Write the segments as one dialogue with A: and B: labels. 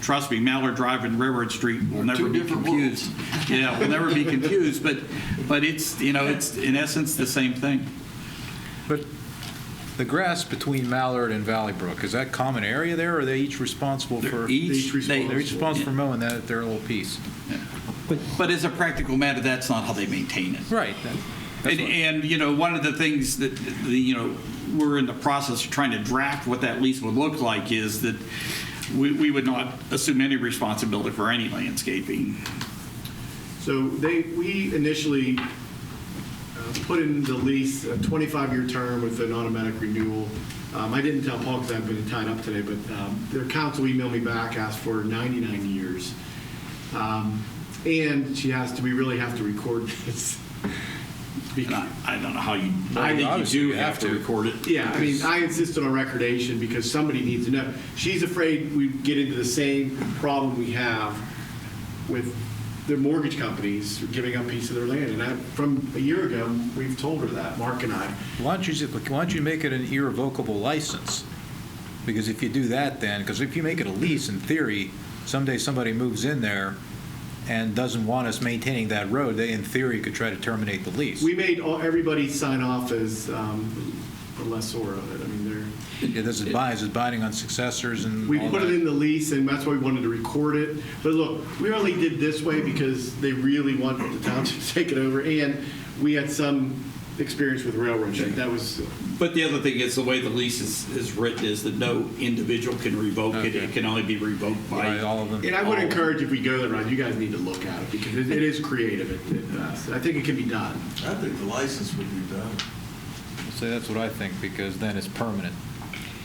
A: trust me, Mallard Drive and Railroad Street will
B: They're
A: never
B: two
A: be
B: different
A: confused. Yeah, will never be confused, but, but it's, you know, it's in essence the same thing.
C: But the grass between Mallard and Valley Brook, is that common area there, or are they each responsible
A: They're
C: for?
A: each- they-
C: They're each responsible for mowing that, their little piece.
A: But as a practical matter, that's not how they maintain it.
C: Right. that- that's
A: And,
C: what-
A: and, you know, one of the things that, the, you know, we're in the process of trying to draft what that lease would look like is that we, we would not assume any responsibility for any landscaping.
D: So they, we initially uh, put in the lease a 25-year term with an automatic renewal. Um, I didn't tell Paul because I've been tied up today, but um, their counsel emailed me back, asked for 99 years. Um, And she asked, do we really have to record this?
A: And I, I don't know how you,
C: I
A: I
C: mean,
A: think
C: obviously
A: you do
C: you have
A: have to
C: to.
A: record it.
D: Yeah, I mean, I insist on a recordation because somebody needs to know. She's afraid we get into the same problem we have with their mortgage companies giving up piece of their land. And I, from a year ago, we've told her that, Mark and I.
C: Why don't you, just- why don't you make it an irrevocable license? Because if you do that then, because if you make it a lease, in theory, someday somebody moves in there and doesn't want us maintaining that road, they in theory could try to terminate the lease.
D: We made all, everybody sign off as um, a lessor of it. I mean, they're.
C: Yeah, This is bi- this is binding on successors and
D: We
C: all
D: put
C: that.
D: it in the lease, and that's why we wanted to record it. But look, we only did this way because they really want the town to take it over, and we had some experience with railroad. shit. That was,
A: But the other thing is the way the lease is, is written is that no individual can revoke it. It can only be revoked
C: Right,
A: by.
C: all of them.
D: and I would encourage if we go that route, you guys need to look at it because it it is creative at at best. I think it can be done.
B: I think the license would be done.
C: So that's what I think, because then it's permanent.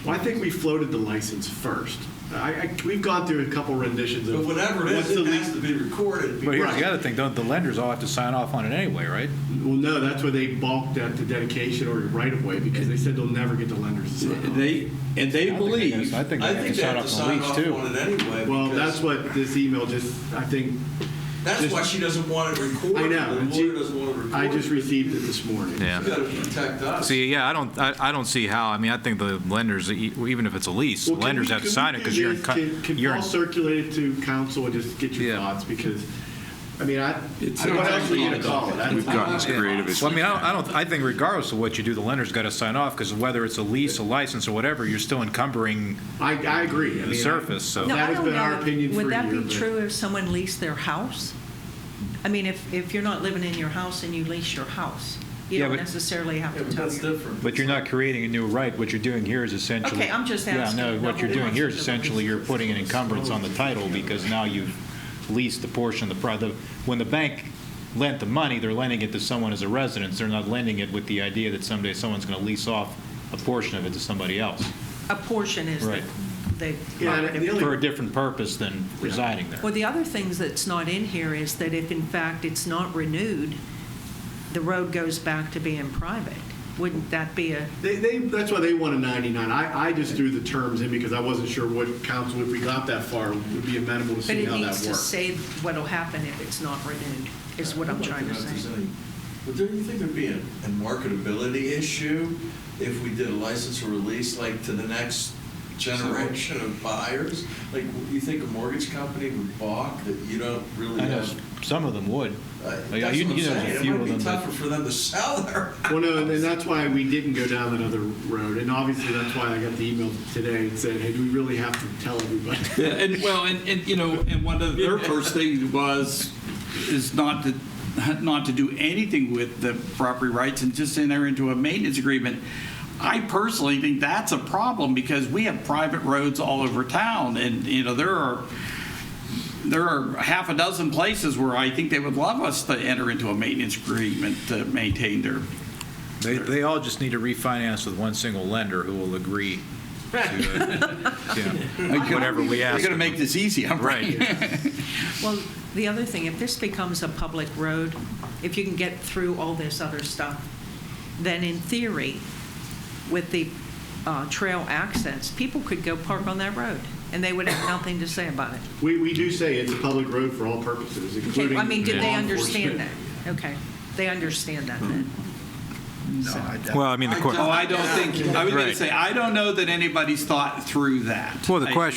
D: Well, I think we floated the license first. I, I, we've gone through a couple renditions of.
B: But whatever it
D: what's
B: is,
D: the
B: it
D: lease-
B: has to be recorded.
C: But here's
D: Right.
C: the other thing, don't, the lenders all have to sign off on it anyway, right?
D: Well, no, that's where they balked at the dedication or right of way because they said they'll never get the lenders to sign off.
A: They, and they
C: I think they
A: believe.
C: guys- I think
B: I
C: they have
B: think
C: to
B: they
C: sign
B: have to
C: off on
B: sign
C: the
B: off
C: lease too.
B: on it anyway.
D: Well,
B: because
D: that's what this email just, I think,
B: That's why she doesn't want it recorded.
D: I know.
B: The lawyer doesn't want it recorded.
D: I just received it this morning.
B: You
E: Yeah.
B: gotta protect us.
E: See, yeah, I don't, I, I don't see how, I mean, I think the lenders, e- even if it's a lease, the
D: Well, can
E: lenders
D: we-
E: have to
D: can we
E: sign it
D: do
E: because you're in,
D: this?
E: co-
D: Can- Can
E: you're
D: Paul
E: in,
D: circulate it to council and just get your
C: Yeah.
D: thoughts? Because, I mean, I,
A: It's
D: I don't
A: not
D: know what
A: actually
D: you to call it. I-
F: We've gotten as
D: I-
F: creative as
C: Well, I mean, I don't- I don't, I think regardless of what you do, the lender's got to sign off, because whether it's a lease, a license, or whatever, you're still encumbering
D: I, I agree. I
C: the
D: mean,
C: surface, so.
D: No.
G: Now,
D: That
G: I
D: has
G: don't
D: been our
G: know,
D: opinion for a
G: Would that
D: year,
G: be
D: but-
G: true if someone leased their house? I mean, if, if you're not living in your house and you lease your house, you
C: Yeah,
G: don't
C: but-
G: necessarily have
B: Yeah,
G: to
B: but
G: tell
B: that's
G: your.
B: different.
C: But you're not creating a new right, what you're doing here is essentially.
G: Okay, I'm just asking.
C: Yeah, no, what you're doing here is essentially you're putting an encumbrance on the title, because now you've leased a portion of the, pro- the, when the bank lent the money, they're lending it to someone as a residence, they're not lending it with the idea that someday someone's going to lease off a portion of it to somebody else,
G: A portion is
C: Right.
G: the,
D: Yeah, and the
G: the.
C: for
D: only,
C: a different purpose than residing there.
G: Well, the other things that's not in here is that if in fact it's not renewed, the road goes back to being private. Wouldn't that be a,
D: they, they, that's why they want a 99. I, I just threw the terms in because I wasn't sure what council, if we got that far, would be amenable to
G: but
D: seeing
G: it
D: how that
G: needs to
D: works.
G: say what'll happen if it's not renewed, is what I'm
B: I'd like
G: trying to
B: know if
G: say.
B: there's any- But do you think there'd be a a marketability issue if we did a license or release, like, to the next generation of buyers? Like, you think a mortgage company would balk that you don't really
C: I know
B: have?
C: s- some of them would.
B: Uh, That's
C: Yeah,
B: what I'm
C: you- you know, there's a
B: saying. It
C: few
B: might
C: of
B: be
C: them that-
B: tougher for them to sell their
D: Well, no, and that's why we didn't go down that other road. And obviously, that's why I got the email today and said, hey, do we really have to tell everybody?
A: Yeah, and well, and, and you know, and one of their first things was is not to not to do anything with the property rights and just enter into a maintenance agreement. I personally think that's a problem because we have private roads all over town, and you know there are there are half a dozen places where I think they would love us to enter into a maintenance agreement to maintain their.
C: They, they all just need to refinance with one single lender who will agree to, uh, you know, whatever we
A: We're
C: ask.
A: going to make this easy. I'm
E: right.
G: Well, the other thing, if this becomes a public road, if you can get through all this other stuff, then in theory, with the uh, trail access, people could go park on that road, and they would have nothing to say about it.
D: We, we do say it's a public road for all purposes,
G: Okay,
D: including.
G: I mean, did they
D: law
G: understand that?
D: enforcement.
G: Okay, they understand that then. So-
E: Well, I mean, the
B: I
E: court,
A: Oh, I don't think I was going
E: Right.
A: to say I don't know that anybody's thought through that.
E: well, the
A: I-
E: question